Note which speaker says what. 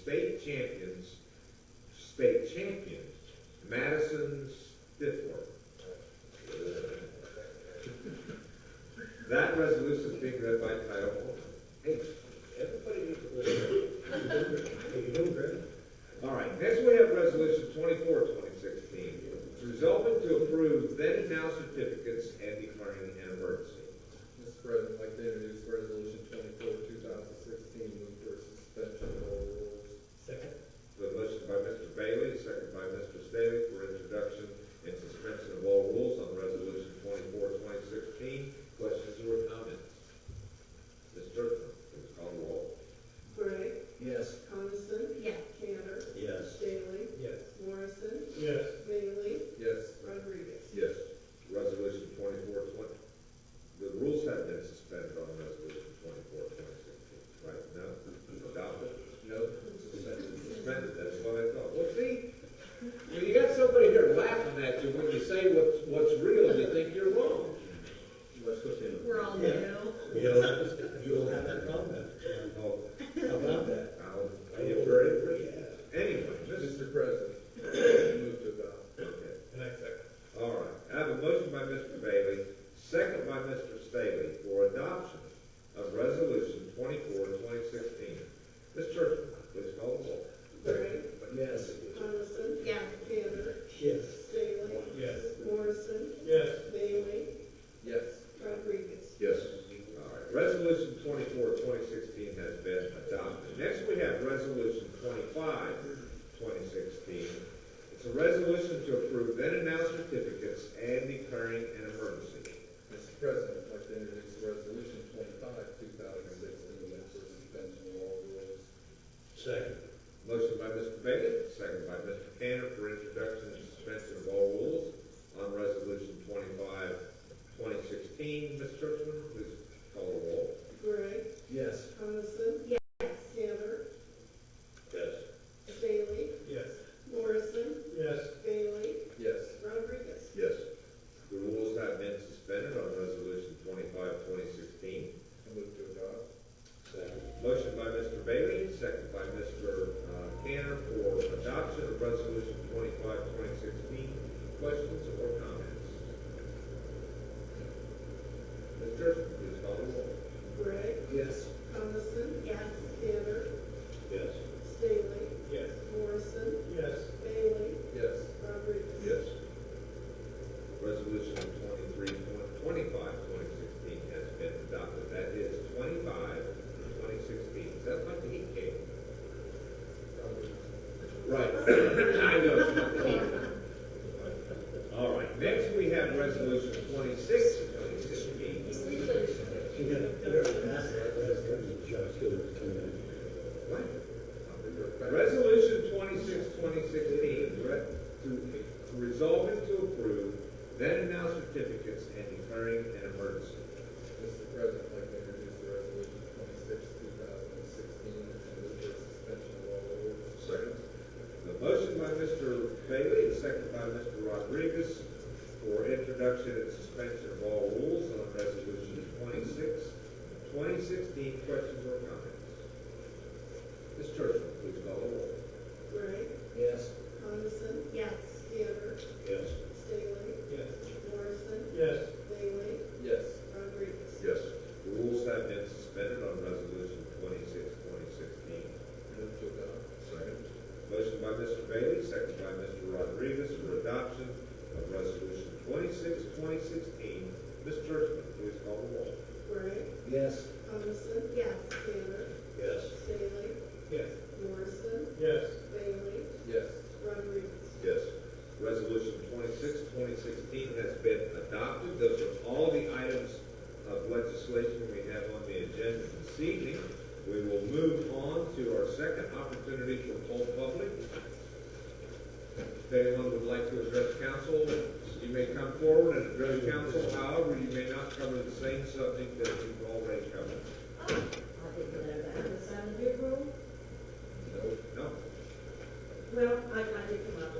Speaker 1: state champions, state champions, Madison's fifth ward. That resolution is being read by title only. Hey,
Speaker 2: Everybody needs to listen.
Speaker 1: All right, next we have resolution 24, 2016, resolving to approve then and now certificates and declaring an emergency.
Speaker 3: Mr. President, I'd like to introduce resolution twenty-four, two thousand sixteen, move for suspension of all rules.
Speaker 2: Second?
Speaker 1: The motion by Mr. Bailey, second by Mr. Staley for introduction and suspension of all rules on resolution 24, 2016. Questions or comments? Ms. Churchman, please call the roll.
Speaker 4: Gray,
Speaker 2: Yes.
Speaker 4: Coniston,
Speaker 5: yes,
Speaker 4: Tanner,
Speaker 2: Yes.
Speaker 4: Staley,
Speaker 2: Yes.
Speaker 4: Morrison,
Speaker 2: Yes.
Speaker 4: Bailey,
Speaker 3: Yes.
Speaker 4: Rodriguez.
Speaker 1: Yes. Resolution 24, 20, the rules have been suspended on resolution 24, 2016, right? No? Adopted?
Speaker 3: No. Suspended.
Speaker 1: suspended, that's what I thought. Well, see, when you got somebody here laughing at you when you say what's, what's real, you think you're wrong.
Speaker 2: Let's go see.
Speaker 5: we're all new.
Speaker 2: You'll, you'll have that comment
Speaker 1: Oh,
Speaker 2: about that.
Speaker 1: I'll, are you afraid? Anyway, this
Speaker 3: Mr. President, move to adopt.
Speaker 1: okay.
Speaker 2: And I second.
Speaker 1: All right, I have a motion by Mr. Bailey, second by Mr. Staley for adoption of resolution 24, 2016. Ms. Churchman, please call the roll.
Speaker 4: Gray,
Speaker 2: Yes.
Speaker 4: Coniston,
Speaker 5: Yes,
Speaker 4: Tanner,
Speaker 2: Yes.
Speaker 4: Staley,
Speaker 2: Yes.
Speaker 4: Morrison,
Speaker 2: Yes.
Speaker 4: Bailey,
Speaker 3: Yes.
Speaker 4: Rodriguez.
Speaker 1: Yes. All right, resolution 24, 2016 has been adopted. Next, we have resolution 25, 2016. It's a resolution to approve then and now certificates and declaring an emergency.
Speaker 3: Mr. President, I'd like to introduce resolution twenty-five, two thousand sixteen, move for suspension of all rules.
Speaker 2: Second.
Speaker 1: Motion by Mr. Bailey, second by Mr. Tanner for introduction and suspension of all rules on resolution 25, 2016. Ms. Churchman, please call the roll.
Speaker 4: Gray,
Speaker 2: Yes.
Speaker 4: Coniston,
Speaker 5: yes,
Speaker 4: Tanner,
Speaker 2: Yes.
Speaker 4: Staley,
Speaker 2: Yes.
Speaker 4: Morrison,
Speaker 2: Yes.
Speaker 4: Bailey,
Speaker 3: Yes.
Speaker 4: Rodriguez.
Speaker 1: Yes. The rules have been suspended on resolution 25, 2016.
Speaker 3: I move to adopt.
Speaker 2: Second.
Speaker 1: Motion by Mr. Bailey, second by Mr. uh, Tanner for adoption of resolution 25, 2016. Questions or comments? Ms. Churchman, please call the roll.
Speaker 4: Gray,
Speaker 2: Yes.
Speaker 4: Coniston,
Speaker 5: yes,
Speaker 4: Tanner,
Speaker 2: Yes.
Speaker 4: Staley,
Speaker 2: Yes.
Speaker 4: Morrison,
Speaker 2: Yes.
Speaker 4: Bailey,
Speaker 3: Yes.
Speaker 4: Rodriguez.
Speaker 1: Yes. Resolution 23, 25, 2016 has been adopted. That is 25, 2016. Is that like the heat cake? Right. I know. it's not the heat cake. All right, next we have resolution 26, 2016. What? Resolution 26, 2016, re- to- resolving to approve then and now certificates and declaring an emergency.
Speaker 3: Mr. President, I'd like to introduce resolution twenty-six, two thousand sixteen, move for suspension of all rules.
Speaker 1: Second. The motion by Mr. Bailey, the second by Mr. Rodriguez for introduction and suspension of all rules on resolution 26, 2016. Questions or comments? Ms. Churchman, please call the roll.
Speaker 4: Gray,
Speaker 2: Yes.
Speaker 4: Coniston,
Speaker 5: yes,
Speaker 4: Tanner,
Speaker 2: Yes.
Speaker 4: Staley,
Speaker 2: Yes.
Speaker 4: Morrison,
Speaker 2: Yes.
Speaker 4: Bailey,
Speaker 3: Yes.
Speaker 4: Rodriguez.
Speaker 1: Yes. Rules have been suspended on resolution 26, 2016.
Speaker 3: Move to adopt.
Speaker 1: Second. Motion by Mr. Bailey, second by Mr. Rodriguez for adoption of resolution 26, 2016. Ms. Churchman, please call the roll.
Speaker 4: Gray,
Speaker 2: Yes.
Speaker 4: Coniston,
Speaker 5: yes,
Speaker 4: Tanner,
Speaker 2: Yes.
Speaker 4: Staley,
Speaker 2: Yes.
Speaker 4: Morrison,
Speaker 2: Yes.
Speaker 4: Bailey,
Speaker 3: Yes.
Speaker 4: Rodriguez.
Speaker 1: Yes. Resolution 26, 2016 has been adopted. Those are all the items of legislation we have on the agenda this evening. We will move on to our second opportunity for poll public. If anyone would like to address council, you may come forward and address council. However, you may not cover the same subject that you've already covered.
Speaker 6: I didn't know that. Was that a new rule?
Speaker 3: No.
Speaker 1: No?
Speaker 6: Well, I, I did come up um,